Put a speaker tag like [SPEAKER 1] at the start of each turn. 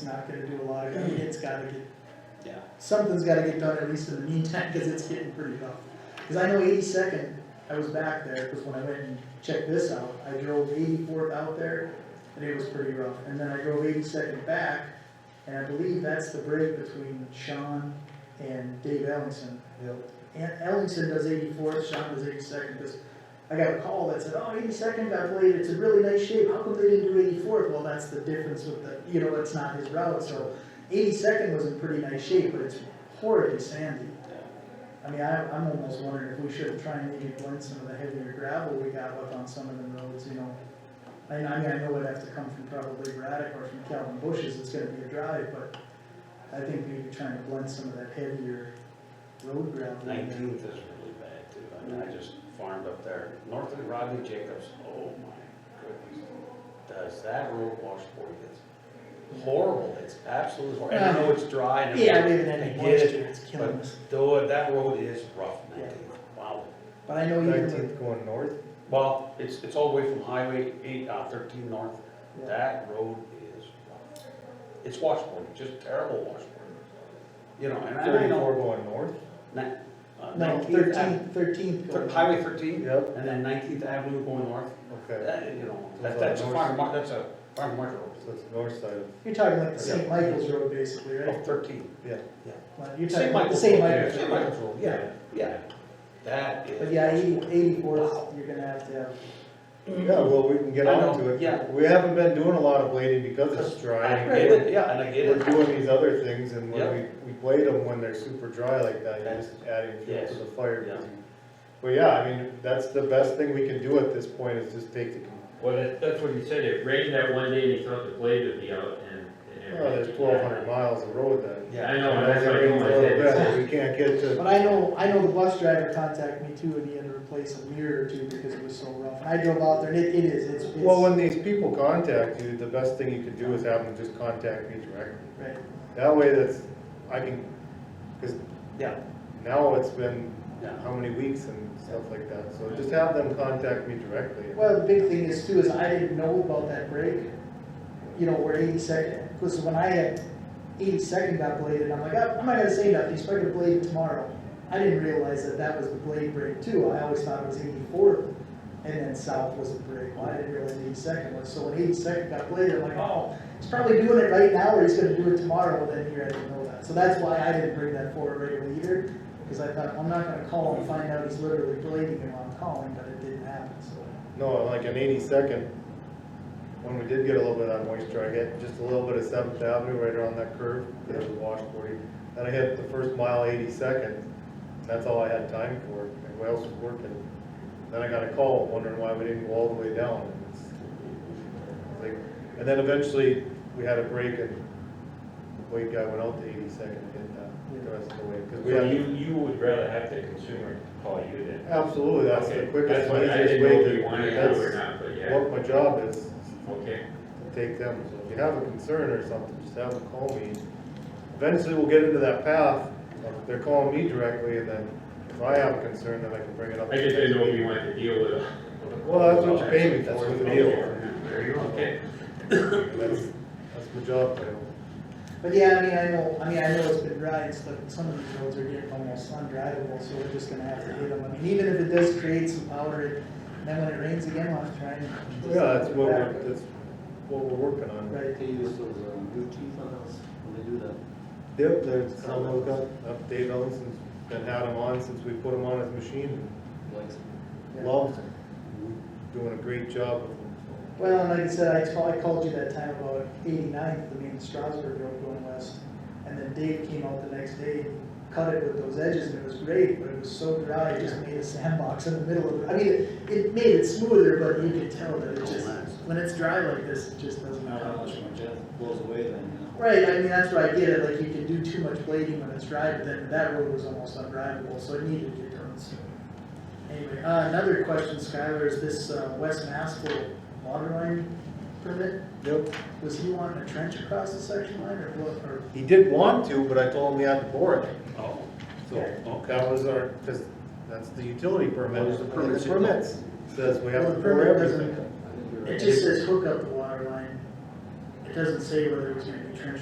[SPEAKER 1] it's not gonna do a lot of good, it's gotta get, yeah, something's gotta get done at least in the meantime, cause it's getting pretty rough. Cause I know eighty-second, I was back there, cause when I went and checked this out, I drove eighty-fourth out there, and it was pretty rough, and then I drove eighty-second back, and I believe that's the break between Sean and Dave Ellingson. And Ellingson does eighty-fourth, Sean does eighty-second, cause I got a call that said, oh, eighty-second got played, it's a really nice shape, how come they didn't do eighty-fourth? Well, that's the difference with the, you know, it's not his route, so eighty-second was in pretty nice shape, but it's horribly sandy. I mean, I, I'm almost wondering if we should try and maybe blend some of the heavier gravel we got left on some of the roads, you know. I mean, I mean, I know it'd have to come from probably Braddock or from Calvin Bushes, it's gonna be a drive, but I think maybe trying to blend some of that heavier road gravel. in there.
[SPEAKER 2] Nineteenth is really bad too, I mean, I just farmed up there, north of Rodney Jacobs, oh my goodness. Does that road washboard It's horrible, it's absolutely horrible, and I know it's dry and
[SPEAKER 1] Yeah,
[SPEAKER 2] everything.
[SPEAKER 1] maybe that ain't
[SPEAKER 2] I get
[SPEAKER 1] moisture,
[SPEAKER 2] it,
[SPEAKER 1] it's killing
[SPEAKER 2] but
[SPEAKER 1] us.
[SPEAKER 2] though, that road is rough nineteenth, wow.
[SPEAKER 1] But I know even with,
[SPEAKER 3] Nineteenth going north,
[SPEAKER 2] Well, it's, it's all the way from Highway eight, uh, thirteen north,
[SPEAKER 1] Yeah.
[SPEAKER 2] that road is rough. It's washboard, just terrible washboard. You know, and I
[SPEAKER 3] thirty-four
[SPEAKER 2] know,
[SPEAKER 3] going north.
[SPEAKER 2] ni- uh,
[SPEAKER 1] no,
[SPEAKER 2] nineteenth, Ave-
[SPEAKER 1] thirteenth, thirteenth.
[SPEAKER 2] thir- Highway thirteen,
[SPEAKER 3] Yep.
[SPEAKER 2] and then Nineteenth Avenue going north,
[SPEAKER 3] Okay,
[SPEAKER 2] that, you know,
[SPEAKER 3] So
[SPEAKER 2] that-
[SPEAKER 3] it's
[SPEAKER 2] that's a
[SPEAKER 3] on
[SPEAKER 2] farm,
[SPEAKER 3] north.
[SPEAKER 2] mar- that's a farm market road.
[SPEAKER 3] so it's north side of,
[SPEAKER 1] You're talking like the St. Michael's Road basically, right?
[SPEAKER 2] Oh, thirteen.
[SPEAKER 3] yeah.
[SPEAKER 1] Well, You're talking like the
[SPEAKER 2] St. Oh. Michael's.
[SPEAKER 1] St.
[SPEAKER 2] Road,
[SPEAKER 1] Michael's.
[SPEAKER 2] St.
[SPEAKER 1] Road.
[SPEAKER 2] Michael's Road, yeah, yeah. That is.
[SPEAKER 1] But yeah, eighty,
[SPEAKER 2] Wow.
[SPEAKER 1] eighty-fourth, you're gonna have to have,
[SPEAKER 3] Yeah, well, we can get
[SPEAKER 2] I
[SPEAKER 3] on
[SPEAKER 2] know,
[SPEAKER 3] to it.
[SPEAKER 2] yeah.
[SPEAKER 3] We haven't been doing a lot of blading because it's dry.
[SPEAKER 2] I get it, yeah, and I get
[SPEAKER 3] We're
[SPEAKER 2] it.
[SPEAKER 3] doing these other things and when
[SPEAKER 2] Yep.
[SPEAKER 3] we, we blade them when they're super dry like that, you're just adding fuel
[SPEAKER 2] Yes.
[SPEAKER 3] to the fire.
[SPEAKER 2] Yeah.
[SPEAKER 3] But yeah, I mean, that's the best thing we can do at this point is just take the,
[SPEAKER 4] Well, that, that's what he said, it rained that one day and he thought the blade would be out and. and it
[SPEAKER 3] well, oh, there's
[SPEAKER 4] rained.
[SPEAKER 3] twelve hundred miles of road then.
[SPEAKER 4] Yeah, I know, and that's what I told
[SPEAKER 3] Rains a
[SPEAKER 4] my
[SPEAKER 3] little
[SPEAKER 4] dad.
[SPEAKER 3] bit, We can't get to.
[SPEAKER 1] but I know, I know the bus driver contacted me too and he had to replace a mirror or two because it was so rough. And I drove out there and it, it is, it's, it's,
[SPEAKER 3] Well,
[SPEAKER 1] right,
[SPEAKER 3] when these people contact you, the best thing you can do is have them just contact me directly. That way that's, I can, cause
[SPEAKER 2] Yeah,
[SPEAKER 3] now it's been
[SPEAKER 2] yeah.
[SPEAKER 3] how many weeks and stuff like that, so just have them contact me directly.
[SPEAKER 1] Well, the big thing is too, is I didn't know about that break, you know, where eighty-second, because when I had eighty-second got bladed, I'm like, "Oh, I'm not gonna say nothing, he's probably gonna blade it tomorrow. I didn't realize that that was the blade break too, I always thought it was eighty-fourth, and then south was the break, well, I didn't realize eighty-second was, so when eighty-second got bladed, I'm like, oh, he's probably doing it right now, or he's gonna do it tomorrow, well, then here I didn't know that, so that's why I didn't bring that forward right away either, because I thought, I'm not gonna call and find out he's literally blading him on calling, but it didn't happen, so.
[SPEAKER 3] No, like an eighty-second, when we did get a little bit of that moisture, I hit just a little bit of Seventh Avenue right around that curve, that was washboardy. Then I hit the first mile eighty-second, that's all I had time for, everybody else was working. Then I got a call wondering why we didn't go all the way down. and it's- it's like- And then eventually, we had a break and the Wade guy went out to eighty-second and hit that the rest of the way. 'cause we
[SPEAKER 4] So
[SPEAKER 3] had-
[SPEAKER 4] you, you would rather have the consumer call you than.
[SPEAKER 3] Absolutely, that's the
[SPEAKER 4] Okay,
[SPEAKER 3] quickest,
[SPEAKER 4] that's what- I
[SPEAKER 3] easiest
[SPEAKER 4] didn't know
[SPEAKER 3] way
[SPEAKER 4] if
[SPEAKER 3] to,
[SPEAKER 4] you wanted to or
[SPEAKER 3] that's
[SPEAKER 4] not, but yeah,
[SPEAKER 3] what my job is,
[SPEAKER 4] okay.
[SPEAKER 3] take them, so if you have a concern or something, just have them call me. Eventually, we'll get into that path, of they're calling me directly, and then if I have a concern, then I can bring it up.
[SPEAKER 4] I just didn't know if you wanted to deal with. it.
[SPEAKER 3] Well, that's what you pay me for,
[SPEAKER 4] That's what
[SPEAKER 3] the
[SPEAKER 4] you pay
[SPEAKER 3] deal.
[SPEAKER 4] for. There you go, okay.
[SPEAKER 3] That's, that's my job title.
[SPEAKER 1] But yeah, I mean, I know, I mean, I know it's been rides, but some of these roads are getting almost undrivable, so we're just gonna have to hit them. I mean, even if it does create some powder, it- then when it rains again, I'll have to try and.
[SPEAKER 3] Yeah, that's what we're, that's what we're working on.
[SPEAKER 1] Right,
[SPEAKER 5] They use those um, new teeth on those, when they do that.
[SPEAKER 3] Yep, there's some of them, up Dave Ellison's been had them on since we put them on his machine,
[SPEAKER 5] Like,
[SPEAKER 1] yeah.
[SPEAKER 3] loves them, doing a great job with them, so.
[SPEAKER 1] Well, and like I said, I called, I called you that time about 89th, I mean, Strasburg Road going west. And then Dave came out the next day, cut it with those edges, and it was great, but it was so dry, it just made a sandbox in the middle of it. I mean, it, it made it smoother, but you could tell that it just, when it's dry like this, it just doesn't.
[SPEAKER 5] not how much my jet blows away then, you know.
[SPEAKER 1] Right, I mean, that's where I get it, like, you can do too much blading when it's dry, but then that road was almost undrivable, so it needed to get done, so. Anyway, uh, another question, Skylar, is this, uh, West Massville water line permit,
[SPEAKER 3] Yep.
[SPEAKER 1] was he wanting a trench across the section line, or what, or?
[SPEAKER 3] He did want to, but I told him he had to bore it.
[SPEAKER 2] Oh,
[SPEAKER 3] So
[SPEAKER 2] okay.
[SPEAKER 3] that was our, because that's the utility permit.
[SPEAKER 5] What is the permit?
[SPEAKER 3] The permits says we
[SPEAKER 1] Well,
[SPEAKER 3] have
[SPEAKER 1] the
[SPEAKER 3] to bore
[SPEAKER 1] permit doesn't-
[SPEAKER 3] everything.
[SPEAKER 5] I think you're right.
[SPEAKER 1] It just says hook up the water line, it doesn't say whether it was gonna be trench